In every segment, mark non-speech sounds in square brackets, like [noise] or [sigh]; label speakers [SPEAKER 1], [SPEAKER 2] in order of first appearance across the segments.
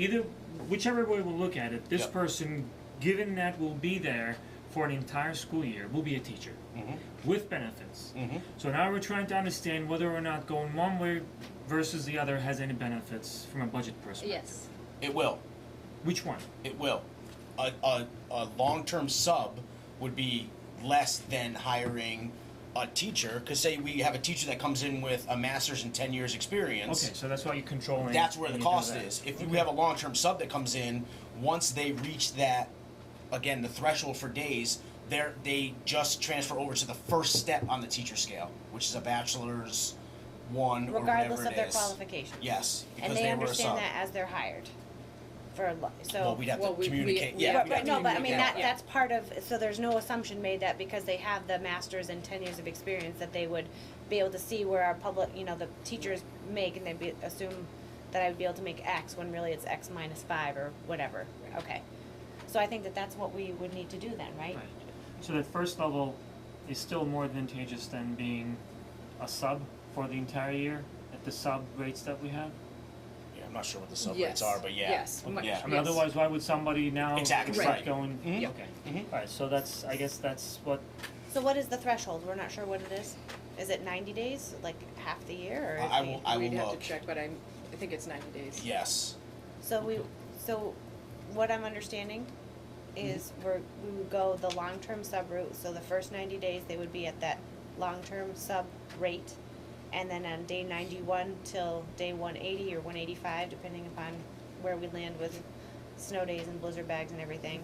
[SPEAKER 1] either whichever way we look at it, this
[SPEAKER 2] Yep.
[SPEAKER 1] person, given that will be there for an entire school year, will be a teacher
[SPEAKER 2] Mm-hmm.
[SPEAKER 1] with benefits. So now we're trying to understand whether or not going one way versus the other has any benefits from a budget perspective.
[SPEAKER 3] Yes,
[SPEAKER 2] It will.
[SPEAKER 1] Which one?
[SPEAKER 2] It will. A, a, a long term sub would be less than hiring a teacher. Because, say, we have a teacher that comes in with a master's and 10 years experience.
[SPEAKER 1] Okay, so that's why you're controlling.
[SPEAKER 2] That's where the
[SPEAKER 1] and you do
[SPEAKER 2] cost
[SPEAKER 1] that.
[SPEAKER 2] is. If we have a long term sub that comes in, once they reach that, again, the threshold for days, they're, they just transfer over to the first step on the teacher scale, which is a bachelor's one or
[SPEAKER 4] regardless
[SPEAKER 2] whatever it
[SPEAKER 4] of their
[SPEAKER 2] is.
[SPEAKER 4] qualifications.
[SPEAKER 2] Yes, because
[SPEAKER 4] And they
[SPEAKER 2] were a sub.
[SPEAKER 4] understand that as they're hired for, lo- so.
[SPEAKER 2] well, we'd have
[SPEAKER 3] Well,
[SPEAKER 2] to
[SPEAKER 3] we- we-
[SPEAKER 2] communicate.
[SPEAKER 3] we
[SPEAKER 2] yeah,
[SPEAKER 3] have
[SPEAKER 4] But,
[SPEAKER 2] we'd
[SPEAKER 3] to
[SPEAKER 4] but no, but I mean,
[SPEAKER 2] communicate.
[SPEAKER 4] that,
[SPEAKER 3] Yeah.
[SPEAKER 4] that's part of, so there's no assumption made that because they have the masters and ten years of experience that they would be able to see where our public, you know, the teachers make and they'd be, assume that I would be able to make X when really it's X minus five or whatever, okay. So I think that that's what we would need to do then, right?
[SPEAKER 1] Right. So that first level is still more advantageous than being a sub for the entire year at the sub rates that we have.
[SPEAKER 2] Yeah, I'm not sure what the sub
[SPEAKER 3] Yes.
[SPEAKER 2] rates are, but yeah.
[SPEAKER 3] Yes. Much-
[SPEAKER 2] Yeah.
[SPEAKER 1] I mean,
[SPEAKER 3] yes.
[SPEAKER 1] otherwise, why would somebody now
[SPEAKER 2] Exactly,
[SPEAKER 1] start
[SPEAKER 2] right.
[SPEAKER 1] going?
[SPEAKER 2] Mhm.
[SPEAKER 1] Okay.
[SPEAKER 2] Mhm.
[SPEAKER 1] All right. So that's. I guess that's what.
[SPEAKER 4] So what is the threshold? We're not sure what it is. Is it ninety days, like half the year, or?
[SPEAKER 2] I- I
[SPEAKER 4] is it-
[SPEAKER 2] will- I will
[SPEAKER 3] we'd have to
[SPEAKER 2] look.
[SPEAKER 3] check, but I'm, I think it's ninety days.
[SPEAKER 2] Yes.
[SPEAKER 4] So we, so what I'm understanding is we're, we would go the long-term sub route, so the first ninety days, they would be at that long-term sub rate. And then on day ninety-one till day one eighty or one eighty-five, depending upon where we land with snow days and blizzard bags and everything,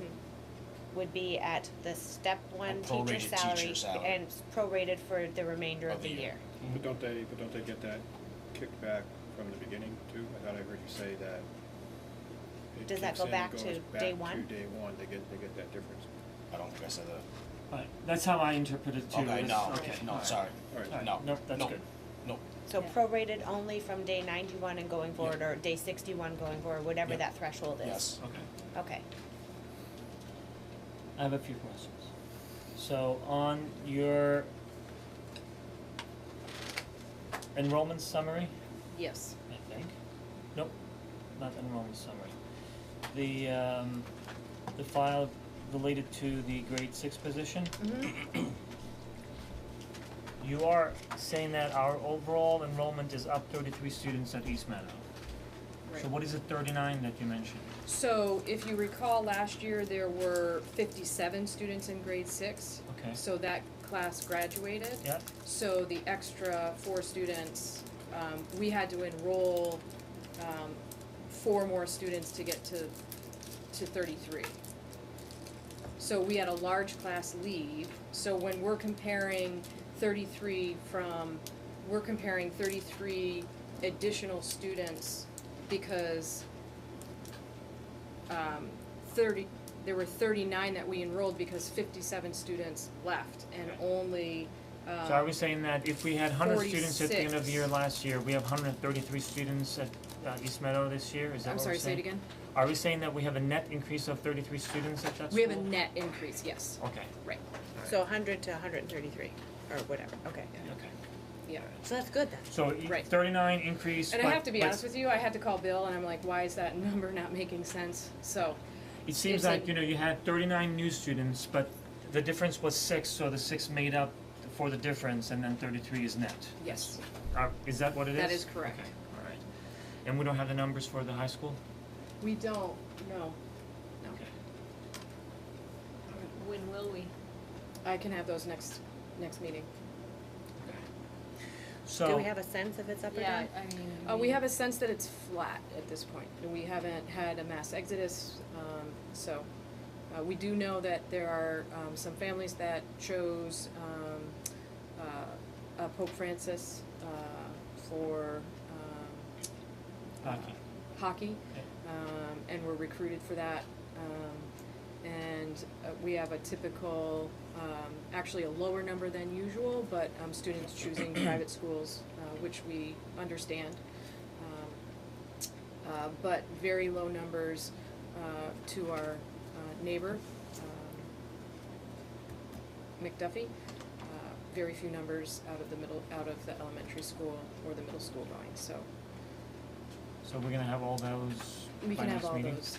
[SPEAKER 4] would be at the step one teacher
[SPEAKER 2] prorated
[SPEAKER 4] salary
[SPEAKER 2] teacher salary.
[SPEAKER 4] and s- prorated for the remainder of the year.
[SPEAKER 5] But don't they, but don't they get that kicked back from the beginning too? I thought I heard you say that. it
[SPEAKER 4] Does that
[SPEAKER 5] kicks
[SPEAKER 4] go
[SPEAKER 5] in,
[SPEAKER 4] back
[SPEAKER 5] goes
[SPEAKER 4] to day one?
[SPEAKER 5] Back to day one, they get, they get that difference.
[SPEAKER 2] I don't think I said that.
[SPEAKER 1] All right. That's how I interpret it too.
[SPEAKER 2] Okay,
[SPEAKER 1] It's-
[SPEAKER 2] no,
[SPEAKER 1] okay, all
[SPEAKER 2] no,
[SPEAKER 1] right.
[SPEAKER 2] sorry.
[SPEAKER 5] All right.
[SPEAKER 1] All right,
[SPEAKER 2] No,
[SPEAKER 1] nope, that's
[SPEAKER 2] no,
[SPEAKER 1] good.
[SPEAKER 2] no.
[SPEAKER 4] So
[SPEAKER 3] Yeah.
[SPEAKER 4] prorated only from day ninety-one and going forward, or day sixty-one going forward, whatever
[SPEAKER 2] Yeah.
[SPEAKER 4] that threshold is?
[SPEAKER 2] Yes.
[SPEAKER 1] Okay.
[SPEAKER 4] Okay.
[SPEAKER 1] I have a few questions. So on your enrollment summary,
[SPEAKER 3] Yes,
[SPEAKER 1] I think. Nope, not enrollment summary. The um the file related to the grade six position.
[SPEAKER 3] Mm-hmm.
[SPEAKER 1] You are saying that our overall enrollment is up thirty-three students at East Meadow. So
[SPEAKER 3] right.
[SPEAKER 1] what is it thirty-nine that you mentioned?
[SPEAKER 3] So if you recall, last year there were fifty-seven students in grade six.
[SPEAKER 1] Okay.
[SPEAKER 3] So that class graduated.
[SPEAKER 1] Yeah,
[SPEAKER 3] So the extra four students, um, we had to enroll, um, four more students to get to, to thirty-three. So we had a large class leave, so when we're comparing thirty-three from, we're comparing thirty-three additional students because, um, thirty, there were thirty-nine that we enrolled because fifty-seven students left and only, um,
[SPEAKER 1] so are we saying that if we had hundred students at the end of the year
[SPEAKER 3] 46.
[SPEAKER 1] last year, we have hundred and thirty-three students at uh East Meadow this year, is that
[SPEAKER 3] I'm
[SPEAKER 1] what we're
[SPEAKER 3] sorry, say
[SPEAKER 1] saying?
[SPEAKER 3] it again?
[SPEAKER 1] Are we saying that we have a net increase of thirty-three students at that school?
[SPEAKER 3] We have a net increase, yes,
[SPEAKER 1] Okay,
[SPEAKER 3] right,
[SPEAKER 4] So hundred to hundred and thirty-three, or whatever, okay.
[SPEAKER 1] okay.
[SPEAKER 3] yeah.
[SPEAKER 4] So that's good then.
[SPEAKER 1] So e-
[SPEAKER 3] Right.
[SPEAKER 1] thirty-nine increase,
[SPEAKER 3] And I
[SPEAKER 1] but-
[SPEAKER 3] have to be
[SPEAKER 1] but
[SPEAKER 3] honest with you, I had to call Bill and I'm like, why is that [laughs] number not making sense? So,
[SPEAKER 1] It seems
[SPEAKER 3] it's
[SPEAKER 1] like,
[SPEAKER 3] a-
[SPEAKER 1] you know, you had thirty-nine new students, but the difference was six, so the six made up for the difference, and then thirty-three is net.
[SPEAKER 3] yes,
[SPEAKER 1] Uh, is that what it is?
[SPEAKER 3] That is correct.
[SPEAKER 1] Okay, all right. And we don't have the numbers for the high school?
[SPEAKER 3] we don't, no, no.
[SPEAKER 6] When will we?
[SPEAKER 3] I can have those next, next meeting.
[SPEAKER 1] So.
[SPEAKER 4] Do we have a sense if it's up or down?
[SPEAKER 6] I mean.
[SPEAKER 3] Uh, we have a sense that it's flat at this point, and we haven't had a mass exodus, um, so, uh, we do know that there are, um, some families that chose, um, uh, uh, Pope Francis, uh, for, um,
[SPEAKER 1] Hockey.
[SPEAKER 3] hockey, um, and we're recruited for that. Um, and uh, we have a typical, um, actually a lower number than usual, but um, students choosing private schools, uh, which we understand. Um, uh, but very low numbers uh, to our uh, neighbor, um, McDuffie. Uh, very few numbers out of the middle, out of the elementary school or the middle school going. So
[SPEAKER 1] So So we're gonna have all those
[SPEAKER 3] We
[SPEAKER 1] by
[SPEAKER 3] can have
[SPEAKER 1] next
[SPEAKER 3] all
[SPEAKER 1] meeting?
[SPEAKER 3] those.